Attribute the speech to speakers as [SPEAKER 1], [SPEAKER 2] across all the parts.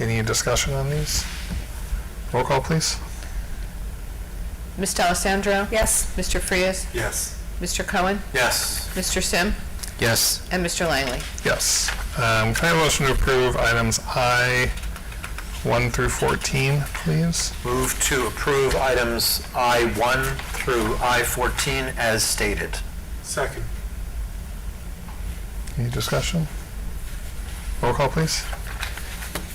[SPEAKER 1] Any discussion on these? Roll call, please.
[SPEAKER 2] Ms. Alessandro?
[SPEAKER 3] Yes.
[SPEAKER 2] Mr. Frias?
[SPEAKER 4] Yes.
[SPEAKER 2] Mr. Cohen?
[SPEAKER 4] Yes.
[SPEAKER 2] Mr. Sim?
[SPEAKER 4] Yes.
[SPEAKER 2] And Mr. Langley?
[SPEAKER 1] Yes. Um, Can I have a motion to approve items I, 1 through 14, please?
[SPEAKER 4] Move to approve items I-1 through I-14 as stated.
[SPEAKER 5] Second.
[SPEAKER 1] Any discussion? Roll call, please.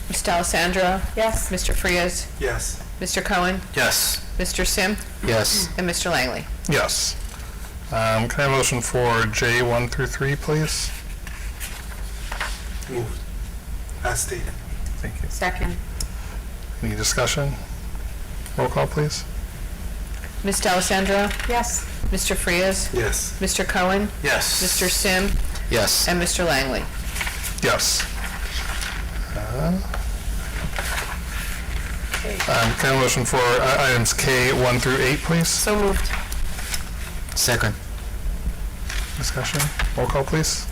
[SPEAKER 2] Ms. Alessandro?
[SPEAKER 3] Yes.
[SPEAKER 2] Mr. Frias?
[SPEAKER 5] Yes.
[SPEAKER 2] Mr. Cohen?
[SPEAKER 4] Yes.
[SPEAKER 2] Mr. Sim?
[SPEAKER 4] Yes.
[SPEAKER 2] And Mr. Langley?
[SPEAKER 1] Yes. Um, Can I have a motion for J, 1 through 3, please?
[SPEAKER 5] Moved. As stated.
[SPEAKER 1] Thank you.
[SPEAKER 3] Second.
[SPEAKER 1] Any discussion? Roll call, please.
[SPEAKER 2] Ms. Alessandro?
[SPEAKER 3] Yes.
[SPEAKER 2] Mr. Frias?
[SPEAKER 5] Yes.
[SPEAKER 2] Mr. Cohen?
[SPEAKER 4] Yes.
[SPEAKER 2] Mr. Sim?
[SPEAKER 4] Yes.
[SPEAKER 2] And Mr. Langley?
[SPEAKER 1] Yes. Uh, um, Can I have a motion for uh, items K, 1 through 8, please?
[SPEAKER 3] So moved.
[SPEAKER 4] Second.
[SPEAKER 1] Discussion? Roll call, please.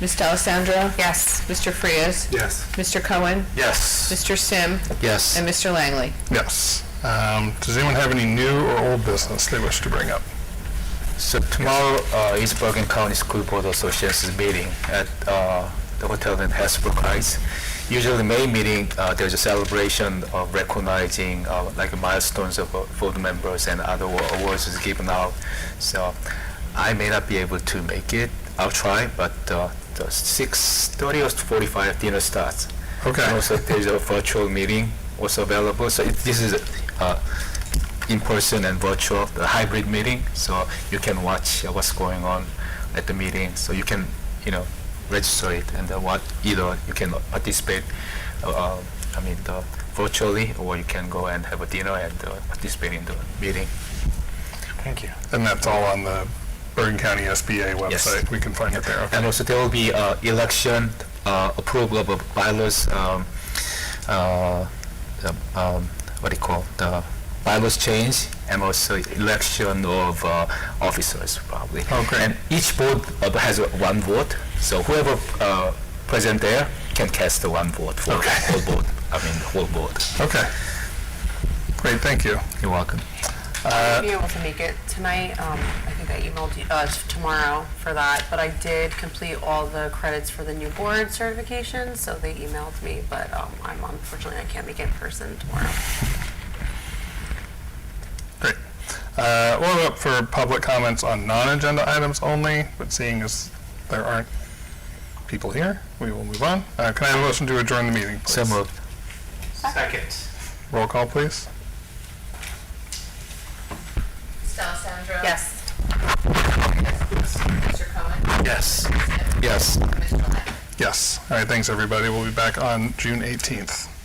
[SPEAKER 2] Ms. Alessandro?
[SPEAKER 3] Yes.
[SPEAKER 2] Mr. Frias?
[SPEAKER 5] Yes.
[SPEAKER 2] Mr. Cohen?
[SPEAKER 4] Yes.
[SPEAKER 2] Mr. Sim?
[SPEAKER 4] Yes.
[SPEAKER 2] And Mr. Langley?
[SPEAKER 1] Yes. Um, Does anyone have any new or old business they wish to bring up?
[SPEAKER 6] So tomorrow, uh, East Bergen County School Board Association's meeting at, uh, the hotel in Hasbrook Heights. Usually May meeting, uh, there's a celebration of recognizing, uh, like milestones of uh, board members and other wa- awards is given out. So I may not be able to make it. I'll try, but, uh, the six thirty or forty-five dinner starts.
[SPEAKER 1] Okay.
[SPEAKER 6] And also there's a virtual meeting also available. So it, this is, uh, in-person and virtual, the hybrid meeting, so you can watch uh, what's going on at the meeting, so you can, you know, register it and uh, what, either you can participate, uh, uh, I mean, uh, virtually, or you can go and have a dinner and uh, participate in the meeting.
[SPEAKER 4] Thank you.
[SPEAKER 1] And that's all on the Bergen County SBA
[SPEAKER 6] Yes.
[SPEAKER 1] website. We can find it there.
[SPEAKER 6] And
[SPEAKER 1] Okay.
[SPEAKER 6] also, there will be uh, election, uh, approval of bylaws, um, uh, the, um, what do you call, the bylaws change, and also election of uh, officers, probably.
[SPEAKER 1] Oh, great.
[SPEAKER 6] And each board uh, has uh, one vote, so whoever uh, present there can cast the one vote for
[SPEAKER 1] Okay.
[SPEAKER 6] whole board, I mean, whole board.
[SPEAKER 1] Okay. Great, thank you.
[SPEAKER 6] You're welcome.
[SPEAKER 3] I'll be able to make it tonight. Um, I think I emailed you, uh, t- tomorrow for that, but I did complete all the credits for the new board certification, so they emailed me, but, um, I'm unfortunately, I can't make it in person tomorrow.
[SPEAKER 1] Great. Uh, We'll open up for public comments on non-agenda items only, but seeing as there aren't people here, we will move on. Uh, Can I have a motion to adjourn the meeting, please?
[SPEAKER 6] So moved.
[SPEAKER 4] Second.
[SPEAKER 1] Roll call, please.
[SPEAKER 2] Ms. Alessandro?
[SPEAKER 3] Yes.
[SPEAKER 2] Mr. Cohen?
[SPEAKER 4] Yes.
[SPEAKER 6] Yes.
[SPEAKER 2] Mr. Langley?
[SPEAKER 1] Yes. All right, thanks, everybody. We'll be back on June 18th.